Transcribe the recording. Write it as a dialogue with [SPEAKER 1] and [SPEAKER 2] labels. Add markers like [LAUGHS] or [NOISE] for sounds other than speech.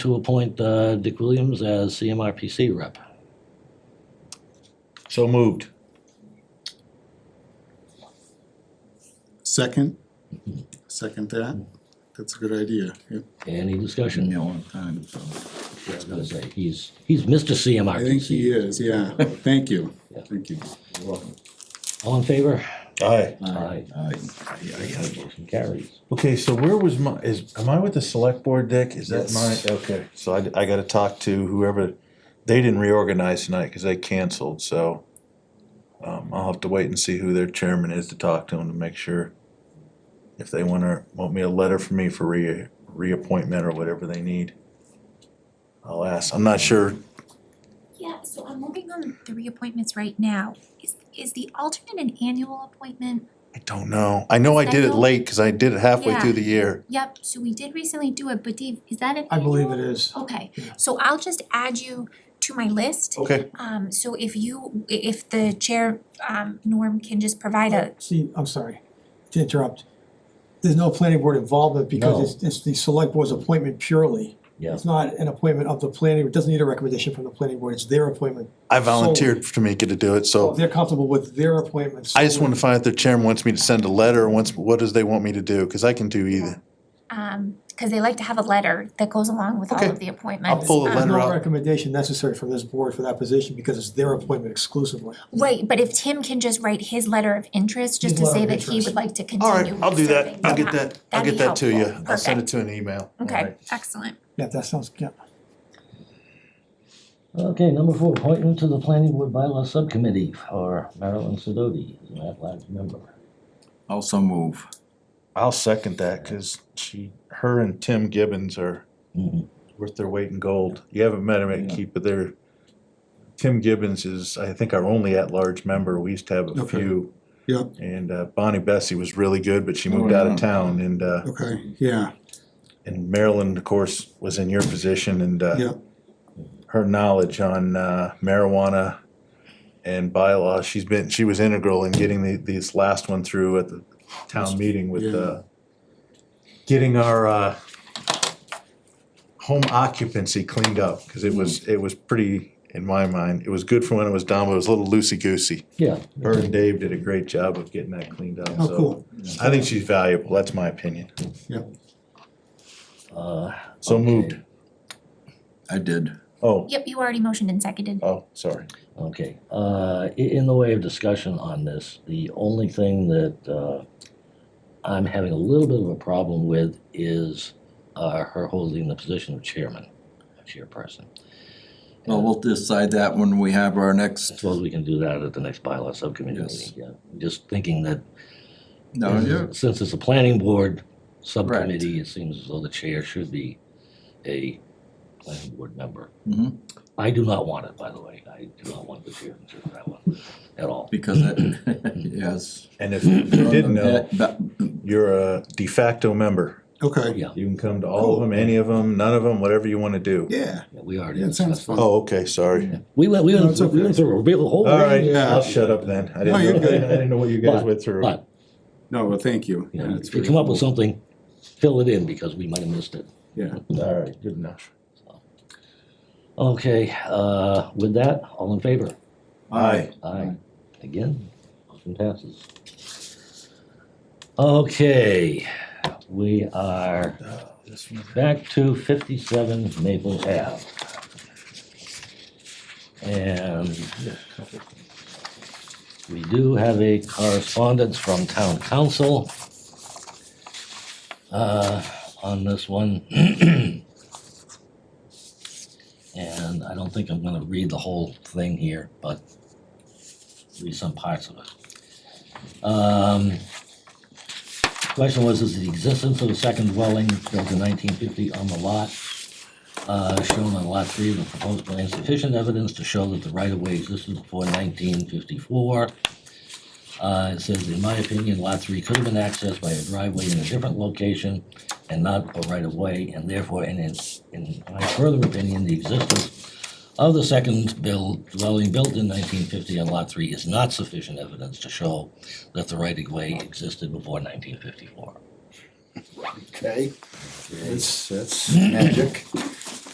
[SPEAKER 1] to appoint uh, Dick Williams as CMRPC rep.
[SPEAKER 2] So moved.
[SPEAKER 3] Second, second that, that's a good idea, yep.
[SPEAKER 1] Any discussion?
[SPEAKER 2] Yeah, long time, so.
[SPEAKER 1] I was gonna say, he's, he's Mr.
[SPEAKER 3] I think
[SPEAKER 1] CMRPC.
[SPEAKER 3] he is, yeah, thank you,
[SPEAKER 1] Yeah.
[SPEAKER 3] thank you.
[SPEAKER 1] All in favor?
[SPEAKER 2] Aye.
[SPEAKER 1] Aye.
[SPEAKER 2] Aye.
[SPEAKER 1] Motion carries.
[SPEAKER 4] Okay, so where was my, is, am I with the select board, Dick? Is that
[SPEAKER 2] Yes.
[SPEAKER 4] my, okay, so I, I gotta talk to whoever, they didn't reorganize tonight, cause they canceled, so. Um, I'll have to wait and see who their chairman is to talk to them to make sure. If they wanna, want me a letter from me for re, reappointment or whatever they need. I'll ask, I'm not sure,
[SPEAKER 5] Yeah, so I'm looking on the reappointments right now. Is is the alternate an annual appointment?
[SPEAKER 4] I don't know, I know I did it
[SPEAKER 5] Schedule?
[SPEAKER 4] late, cause I did it halfway
[SPEAKER 5] Yeah.
[SPEAKER 4] through the year.
[SPEAKER 5] Yep, so we did recently do it, but Dave, is that an
[SPEAKER 6] I believe it
[SPEAKER 5] annual?
[SPEAKER 6] is.
[SPEAKER 5] Okay, so I'll just add you to my list.
[SPEAKER 4] Okay.
[SPEAKER 5] Um so if you, i- if the chair, um Norm can just provide a,
[SPEAKER 6] See, I'm sorry to interrupt. There's no planning board involvement
[SPEAKER 1] No.
[SPEAKER 6] because it's, it's the select board's appointment purely.
[SPEAKER 1] Yeah.
[SPEAKER 6] It's not an appointment of the planning, it doesn't need a recommendation from the planning board, it's their appointment.
[SPEAKER 4] I volunteered for Tamika to do it,
[SPEAKER 6] So
[SPEAKER 4] so
[SPEAKER 6] if they're comfortable with their appointments.
[SPEAKER 4] I just wanna find out if their chairman wants me to send a letter, or wants, what does they want me to do, cause I can do either.
[SPEAKER 5] um, cause they like to have a letter that goes along with all
[SPEAKER 4] Okay.
[SPEAKER 5] of the appointments.
[SPEAKER 4] pull a
[SPEAKER 5] Um,
[SPEAKER 6] There's
[SPEAKER 4] letter
[SPEAKER 6] no
[SPEAKER 4] out.
[SPEAKER 6] recommendation necessary from this board for that position because it's their appointment exclusively.
[SPEAKER 5] Right, but if Tim can just write his letter of interest, just
[SPEAKER 6] His
[SPEAKER 5] to
[SPEAKER 6] letter
[SPEAKER 5] say
[SPEAKER 6] of
[SPEAKER 5] that he
[SPEAKER 6] interest.
[SPEAKER 5] would like to
[SPEAKER 4] All
[SPEAKER 5] continue
[SPEAKER 4] right, I'll do that.
[SPEAKER 5] serving.
[SPEAKER 4] I'll get
[SPEAKER 5] Okay.
[SPEAKER 4] that, I'll
[SPEAKER 5] That'd
[SPEAKER 4] get
[SPEAKER 5] be
[SPEAKER 4] that to
[SPEAKER 5] helpful.
[SPEAKER 4] you. I'll send it to an email. All
[SPEAKER 5] Okay,
[SPEAKER 4] right.
[SPEAKER 5] excellent.
[SPEAKER 6] Yeah, that sounds, yeah.
[SPEAKER 1] Okay, number four, appointment to the planning board bylaw subcommittee for Marilyn Sidoti, as an at-large member.
[SPEAKER 2] Also move.
[SPEAKER 4] I'll second that, cause she, her and Tim Gibbons are
[SPEAKER 1] Mhm.
[SPEAKER 4] worth their weight in gold. You haven't met him at Keep, but they're, Tim Gibbons is, I think, our only at-large member. We used to have a
[SPEAKER 3] Okay.
[SPEAKER 4] few.
[SPEAKER 3] Yeah.
[SPEAKER 4] And uh, Bonnie Bessie was really good, but she
[SPEAKER 2] Oh,
[SPEAKER 4] moved out
[SPEAKER 2] yeah.
[SPEAKER 4] of town and, uh,
[SPEAKER 3] Okay, yeah,
[SPEAKER 4] and Marilyn, of course, was in your position and, uh,
[SPEAKER 3] yeah,
[SPEAKER 4] her knowledge on uh, marijuana and bylaws. She's been, she was integral in getting the, this last one through at the town meeting with, uh, getting our, uh, home occupancy cleaned up, cause it was, it was pretty, in my mind, it was good for when it was done, but it was a little loosey-goosey.
[SPEAKER 1] Yeah.
[SPEAKER 4] Her and Dave did a great job of getting that cleaned up,
[SPEAKER 3] oh,
[SPEAKER 4] so.
[SPEAKER 3] cool,
[SPEAKER 4] I think she's valuable, that's my opinion.
[SPEAKER 3] yeah,
[SPEAKER 1] Uh,
[SPEAKER 4] So
[SPEAKER 1] Okay.
[SPEAKER 4] moved.
[SPEAKER 2] I did.
[SPEAKER 4] Oh,
[SPEAKER 5] Yep, you already motioned and seconded.
[SPEAKER 4] oh, sorry.
[SPEAKER 1] Okay, uh, i- in the way of discussion on this, the only thing that, uh, I'm having a little bit of a problem with is, uh, her holding the position of chairman, chairperson.
[SPEAKER 2] Well, we'll decide that when we have our
[SPEAKER 1] I
[SPEAKER 2] next,
[SPEAKER 1] suppose we can do that at the next bylaw subcommittee meeting,
[SPEAKER 2] Yes.
[SPEAKER 1] yeah. Just thinking that uh,
[SPEAKER 2] no,
[SPEAKER 3] Oh,
[SPEAKER 2] yeah,
[SPEAKER 1] Since it's a planning board subcommittee, it seems as though the chair should be a planning board member.
[SPEAKER 2] Mhm.
[SPEAKER 1] I do not want it, by the way. I do not want the chair to do that one at all.
[SPEAKER 2] because it, [LAUGHS] yes.
[SPEAKER 4] And
[SPEAKER 3] [COUGHS]
[SPEAKER 4] if you didn't know,
[SPEAKER 2] But-
[SPEAKER 4] you're a de facto member.
[SPEAKER 3] okay,
[SPEAKER 1] Yeah,
[SPEAKER 4] You can come to all of them, any of them, none of them, whatever you wanna do.
[SPEAKER 3] yeah,
[SPEAKER 1] yeah, we already
[SPEAKER 3] That sounds
[SPEAKER 1] discussed that.
[SPEAKER 3] fun.
[SPEAKER 4] Oh, okay, sorry.
[SPEAKER 1] We went, we
[SPEAKER 3] No,
[SPEAKER 1] went,
[SPEAKER 3] it's
[SPEAKER 1] through- we went through a real whole.
[SPEAKER 4] All right,
[SPEAKER 1] range.
[SPEAKER 3] Yeah.
[SPEAKER 4] I'll shut up then. I
[SPEAKER 3] No, you're
[SPEAKER 4] didn't know, I
[SPEAKER 3] good.
[SPEAKER 4] didn't know what you guys
[SPEAKER 1] But-
[SPEAKER 4] went through.
[SPEAKER 1] But,
[SPEAKER 3] no, well, thank you.
[SPEAKER 1] you
[SPEAKER 3] Yeah,
[SPEAKER 1] know,
[SPEAKER 3] it's
[SPEAKER 1] if you
[SPEAKER 3] very
[SPEAKER 1] come up with
[SPEAKER 3] cool.
[SPEAKER 1] something, fill it in because we might have missed it.
[SPEAKER 3] Yeah,
[SPEAKER 4] All right, good enough.
[SPEAKER 1] Okay, uh, with that, all in favor?
[SPEAKER 4] Aye.
[SPEAKER 1] Aye. Again, motion passes. Okay, we are back to fifty-seven Maple Ave. And we do have a correspondence from town council uh, on this one. [CLEARS THROAT] And I don't think I'm gonna read the whole thing here, but read some parts of it. Um, Question was, is the existence of a second dwelling built in nineteen fifty on the lot uh, shown on lot three of the proposed plan sufficient evidence to show that the right-of-way existed before nineteen fifty-four? Uh, it says, in my opinion, lot three could have been accessed by a driveway in a different location and not a right-of-way, and therefore, and in, in my further opinion, the existence of the second build, dwelling built in nineteen fifty on lot three is not sufficient evidence to show that the right of way existed before nineteen fifty-four.
[SPEAKER 2] Okay, that's, that's magic.